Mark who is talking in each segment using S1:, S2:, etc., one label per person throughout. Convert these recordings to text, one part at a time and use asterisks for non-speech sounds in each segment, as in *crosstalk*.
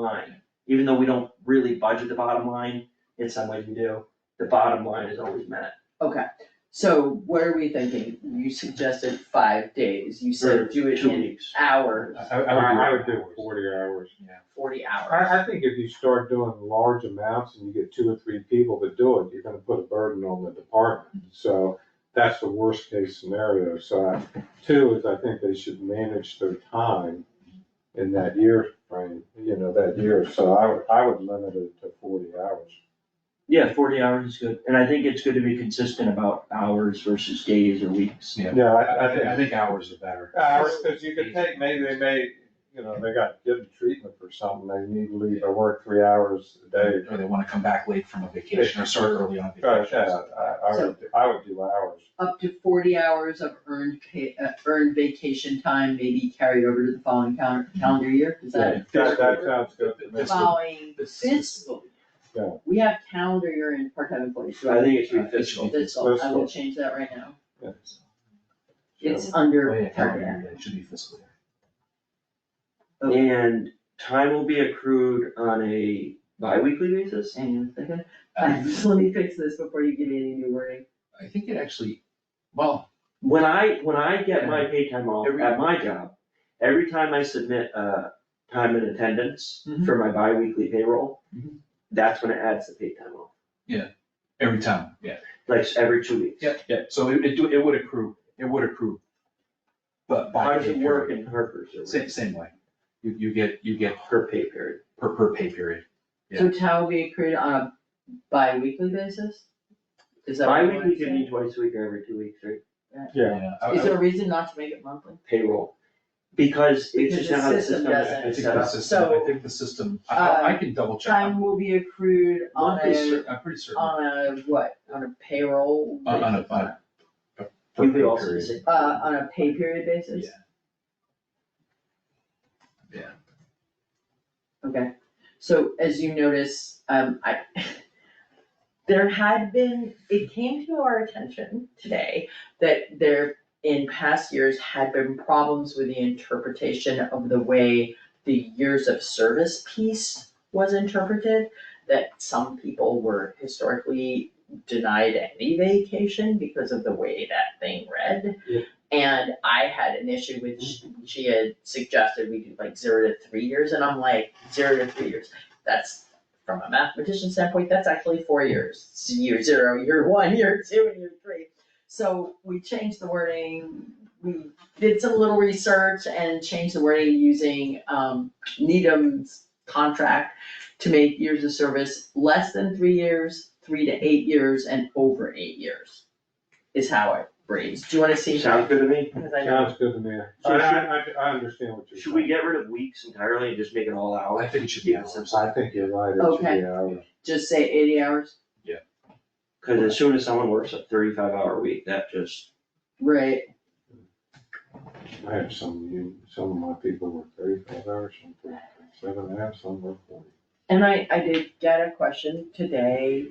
S1: line, even though we don't really budget the bottom line, in some ways we do, the bottom line is always met.
S2: Okay, so what are we thinking? You suggested five days, you
S1: Or
S2: said do it
S1: Two
S2: in
S1: weeks.
S2: hours,
S3: I, I would do
S4: Hours.
S3: forty hours.
S2: forty hours.
S3: I, I think if you start doing large amounts and you get two or three people to do it, you're gonna put a burden on the department. So that's the worst case scenario. So I- two is I think they should manage their time in that year frame, you know, that year. So I would, I would limit it to forty hours.
S1: Yeah, forty hours is good, and I think it's good to be consistent about hours versus days or weeks.
S4: Yeah.
S3: Yeah,
S4: I, I think, I think hours are better.
S3: Hours, cause you could take, maybe they may, you know, they got given treatment for something, they need to leave or work three hours a day
S4: Or they wanna come back late from a vacation or start early on
S3: Right,
S4: vacation.
S3: yeah, I, I would, I would do hours.
S2: Up to forty hours of earned pay, uh, earned vacation time may be carried over to the following calendar, calendar year, is that?
S3: That, that sounds good to
S2: The
S3: me.
S4: That's the-
S2: Following
S4: this-
S2: fiscal.
S3: Yeah.
S2: year. We have calendar year in part-time employees,
S1: I
S2: right?
S1: think it should be fiscal.
S2: Fiscal, I
S3: Fiscal.
S2: will change that right now.
S3: Yeah.
S2: It's
S4: Oh, yeah,
S2: under
S4: calendar
S2: calendar.
S4: year, it should be fiscal year.
S2: Okay.
S1: And time will be accrued on a bi-weekly basis?
S2: Hang on a second, *laughs*
S4: Um,
S2: let me fix this before you give me any new wording.
S4: I think it actually, well,
S1: When I, when I get my paid time off
S4: Every-
S1: at my job, every time I submit, uh, time and attendance
S2: Mm-hmm.
S4: Mhm.
S1: for my bi-weekly payroll,
S4: Mhm.
S1: that's when it adds the paid time off,
S4: every time, yeah.
S1: like every two weeks.
S4: Yep. Yeah, so it, it do, it would accrue, it would accrue. But by.
S1: How does it
S4: pay
S1: work
S4: period.
S1: in Harper's or
S4: Same, same way. You, you get, you get
S1: per pay period?
S4: per, per pay period.
S2: So tau will be accrued on a bi-weekly basis? Is that what you
S1: Bi-weekly
S2: want
S1: can be twice a week or every two weeks, right?
S3: Yeah,
S4: I- I-
S2: Is there a reason not to make it monthly?
S1: Payroll, because it's
S2: Because
S1: just
S2: the
S1: not how the
S2: system
S1: system
S2: doesn't-
S4: I
S1: is
S4: think
S1: set
S4: the
S1: up.
S4: system, I
S2: So,
S4: think the system, I- I, I can double check.
S2: Time will be accrued on
S4: I'm pretty
S2: a,
S4: cer- I'm pretty
S1: Um,
S4: certain, Uh,
S2: on a what, on a payroll?
S4: On- on a-
S2: basis?
S4: on a- per
S1: You
S4: pay
S1: could also
S4: period,
S1: say.
S2: Uh, on a pay period basis?
S4: Yeah. Yeah.
S2: Okay, so as you notice, um, I, *laughs* there had been, it came to our attention today that there, in past years, had been problems with the interpretation of the way the years of service piece was interpreted, that some people were historically denied any vacation because of the way that thing read. And I had an issue with, sh- she had suggested we do like zero to three years, and I'm like, zero to three years, that's, from a mathematician standpoint, that's actually four years. It's Year zero, year one, *laughs* year two, and year three. So we changed the wording, we did some little research and changed the wording using, um, Needham's contract to make years of service less than three years, three to eight years, and over eight years, is how it reads. Do you wanna see?
S1: Sounds good to me.
S2: Because I know,
S3: sounds good to me. I,
S1: So
S3: I, I- I understand what you're saying.
S1: Should we get rid of weeks entirely and just make it all
S4: I
S1: hours?
S4: think it should be hours.
S3: I think you're right, it should
S2: Okay.
S3: be hours.
S2: just say eighty hours,
S1: Cause as soon as someone works a thirty-five hour week, that just,
S2: right,
S3: I have some, of you- some of my people work thirty-five hours, some work seven and a half, some work forty.
S2: and I, I did get a question today,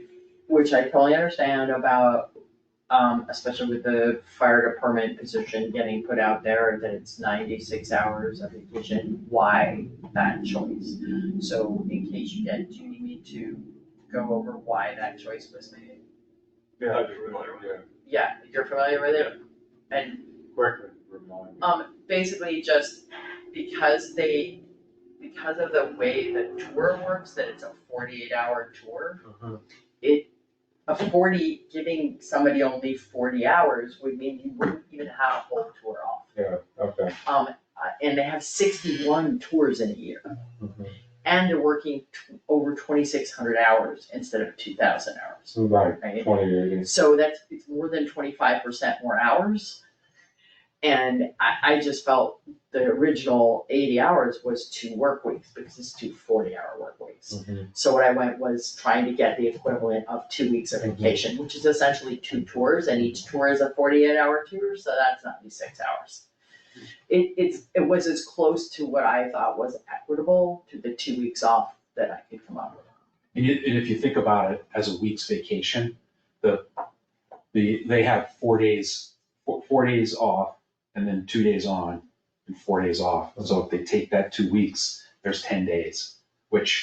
S2: which I totally understand about, um, especially with the fire department position getting put out there, that it's ninety-six hours of vacation, why that choice? So in case you get, do you need me to go over why that choice was made?
S3: Yeah,
S1: I'd be familiar with
S3: it.
S2: Yeah, you're familiar with it? And
S3: Quickly remind me.
S2: Um, basically just because they, because of the way the tour works, that it's a forty-eight hour tour.
S3: Mhm.
S2: A forty, giving somebody only forty hours would mean you wouldn't even have a whole tour off.
S3: Yeah, okay.
S2: Um, uh, and they have sixty-one tours in a year, Mm-hmm.
S3: Mhm.
S2: and they're working t- over twenty-six hundred hours instead of two thousand hours,
S3: So like
S2: right?
S3: twenty eight.
S2: So that's, it's more than twenty-five percent more hours. And I, I just felt the original eighty hours was two work weeks, because it's two forty-hour work weeks. So what I went was trying to get the equivalent of two weeks of
S3: Mhm.
S2: vacation, which is essentially two tours, and each tour is a forty-eight hour tour, so that's ninety-six hours. It, it's, it was as close to what I thought was equitable to the two weeks off that I could come up with.
S4: And you, and if you think about it as a week's vacation, the, the, they have four days, four, four days off and then two days on and four days off. So if they take that two weeks, there's ten days. which